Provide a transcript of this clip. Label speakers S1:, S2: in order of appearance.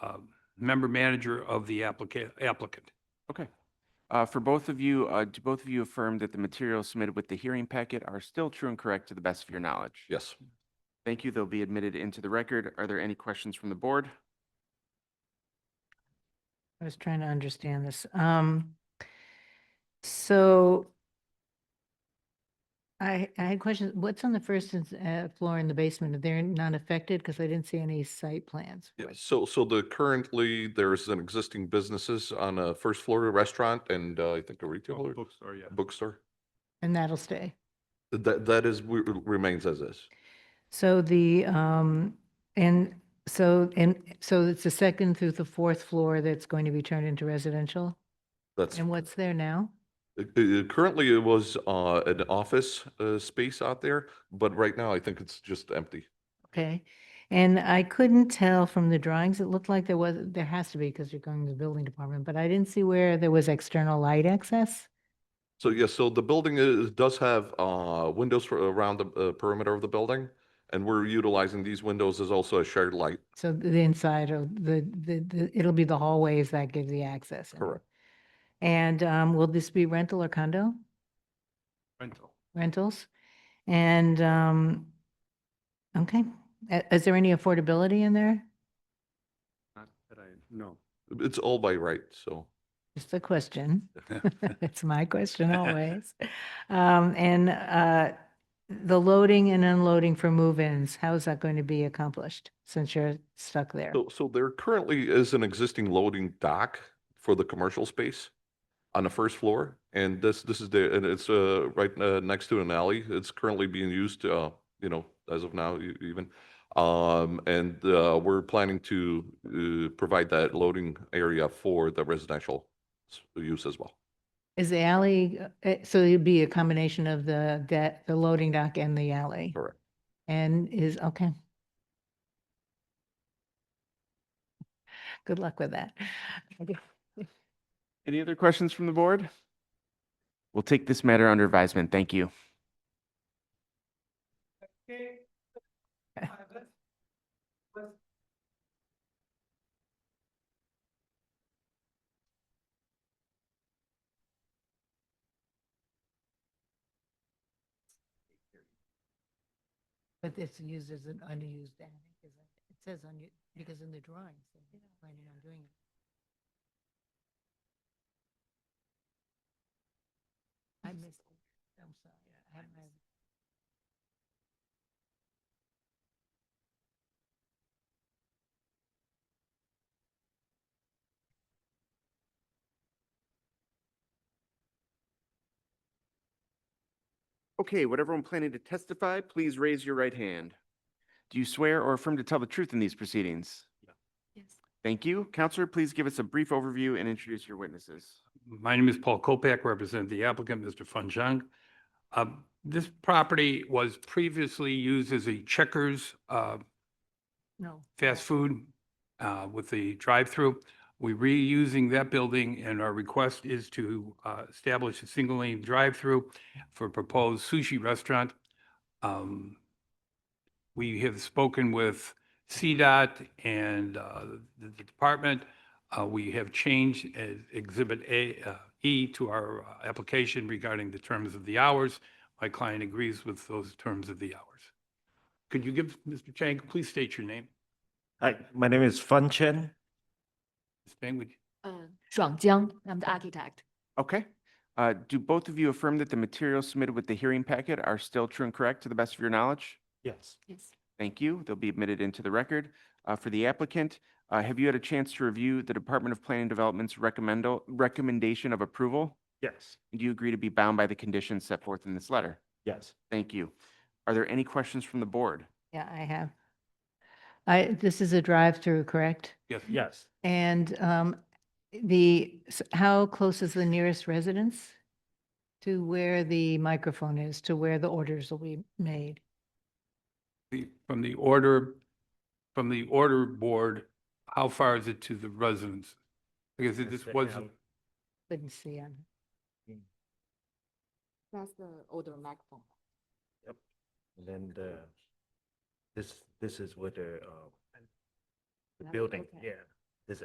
S1: um, member manager of the applicant, applicant.
S2: Uh, For both of you, uh, do both of you affirm that the materials submitted with the hearing packet are still true and correct to the best of your knowledge?
S3: Yes.
S2: Thank you. They'll be admitted into the record. Are there any questions from the board?
S4: I was trying to understand this. Um, so I, I had questions. What's on the first and s- uh, floor in the basement? Are they not affected? Because I didn't see any site plans.
S3: Yeah,
S4: for it.
S3: so, so the, currently, there's an existing businesses on a first floor restaurant and uh, I think a retailer,
S1: Bookstore, yeah.
S3: bookstore.
S4: And that'll stay.
S3: That, that is, we- remains as is.
S4: So the, um, and so, and so it's the second through the fourth floor that's going to be turned into residential?
S3: That's,
S4: And what's there now?
S3: uh, uh, currently it was uh, an office uh, space out there, but right now I think it's just empty.
S4: Okay. And I couldn't tell from the drawings, it looked like there was, there has to be because you're going to the building department, but I didn't see where there was external light access.
S3: So yes, so the building is, does have uh, windows for- around the uh, perimeter of the building. And we're utilizing these windows as also a shared light.
S4: So the inside of the, the, the it'll be the hallways that give the access. in.
S3: Correct.
S4: And um, will this be rental or condo?
S1: Rental.
S4: Rentals? And, um, okay, Uh, is there any affordability in there?
S1: Not that I, no.
S3: It's all by right, so.
S4: Just a question. It's my question always. Um, and, uh, the loading and unloading for move-ins, how is that going to be accomplished since you're stuck there?
S3: So, so there currently is an existing loading dock for the commercial space on the first floor. And this, this is the, and it's, uh, right, uh, next to an alley. It's currently being used, uh, you know, as of now e- even. Um, and, uh, we're planning to, uh, provide that loading area for the residential s- use as well.
S4: Is the alley, uh, eh, so it'd be a combination of the, that, the loading dock and the alley?
S3: Correct.
S4: And is, okay. Good luck with that. Okay.
S2: Any other questions from the board? We'll take this matter under advisement. Thank you.
S4: But it's used as an unused attic, is it? It says unused, because in the drawings, they're planning on doing it. I missed it. I'm sorry. I had my-
S2: Okay, would everyone planning to testify, please raise your right hand. Do you swear or affirm to tell the truth in these proceedings?
S4: Yes.
S2: Thank you. Counselor, please give us a brief overview and introduce your witnesses.
S1: My name is Paul Kopak, represent the applicant, Mr. Fanjang. Um, This property was previously used as a Checkers uh,
S4: No.
S1: fast food uh, with the drive-through. We're reusing that building, and our request is to uh, establish a single-lane drive-through for a proposed sushi restaurant. Um, We have spoken with CDOT and uh, the the department. Uh, We have changed uh, Exhibit A, uh, E to our uh, application regarding the terms of the hours. My client agrees with those terms of the hours. Could you give, Mr. Chang, please state your name?
S5: Hi, my name is Fan Chen.
S1: Ms. Bang, would you-
S6: Uh, Shuang Jiang, I'm the architect.
S2: Okay. Uh, Do both of you affirm that the materials submitted with the hearing packet are still true and correct to the best of your knowledge?
S5: Yes.
S6: Yes.
S2: Thank you. They'll be admitted into the record. Uh, For the applicant, uh, have you had a chance to review the Department of Planning and Development's recommendo- recommendation of approval?
S5: Yes.
S2: Do you agree to be bound by the conditions set forth in this letter?
S5: Yes.
S2: Thank you. Are there any questions from the board?
S4: Yeah, I have. I, this is a drive-through, correct?
S1: Yes.
S5: Yes.
S4: And um, the, s- how close is the nearest residence to where the microphone is, to where the orders will be made?
S1: The- From the order, from the order board, how far is it to the residence? Because it- this was,
S4: Couldn't see on.
S6: That's the older microphone.
S5: And then the, this, this is where the, uh, the
S6: That's
S5: building,
S6: okay.
S5: yeah,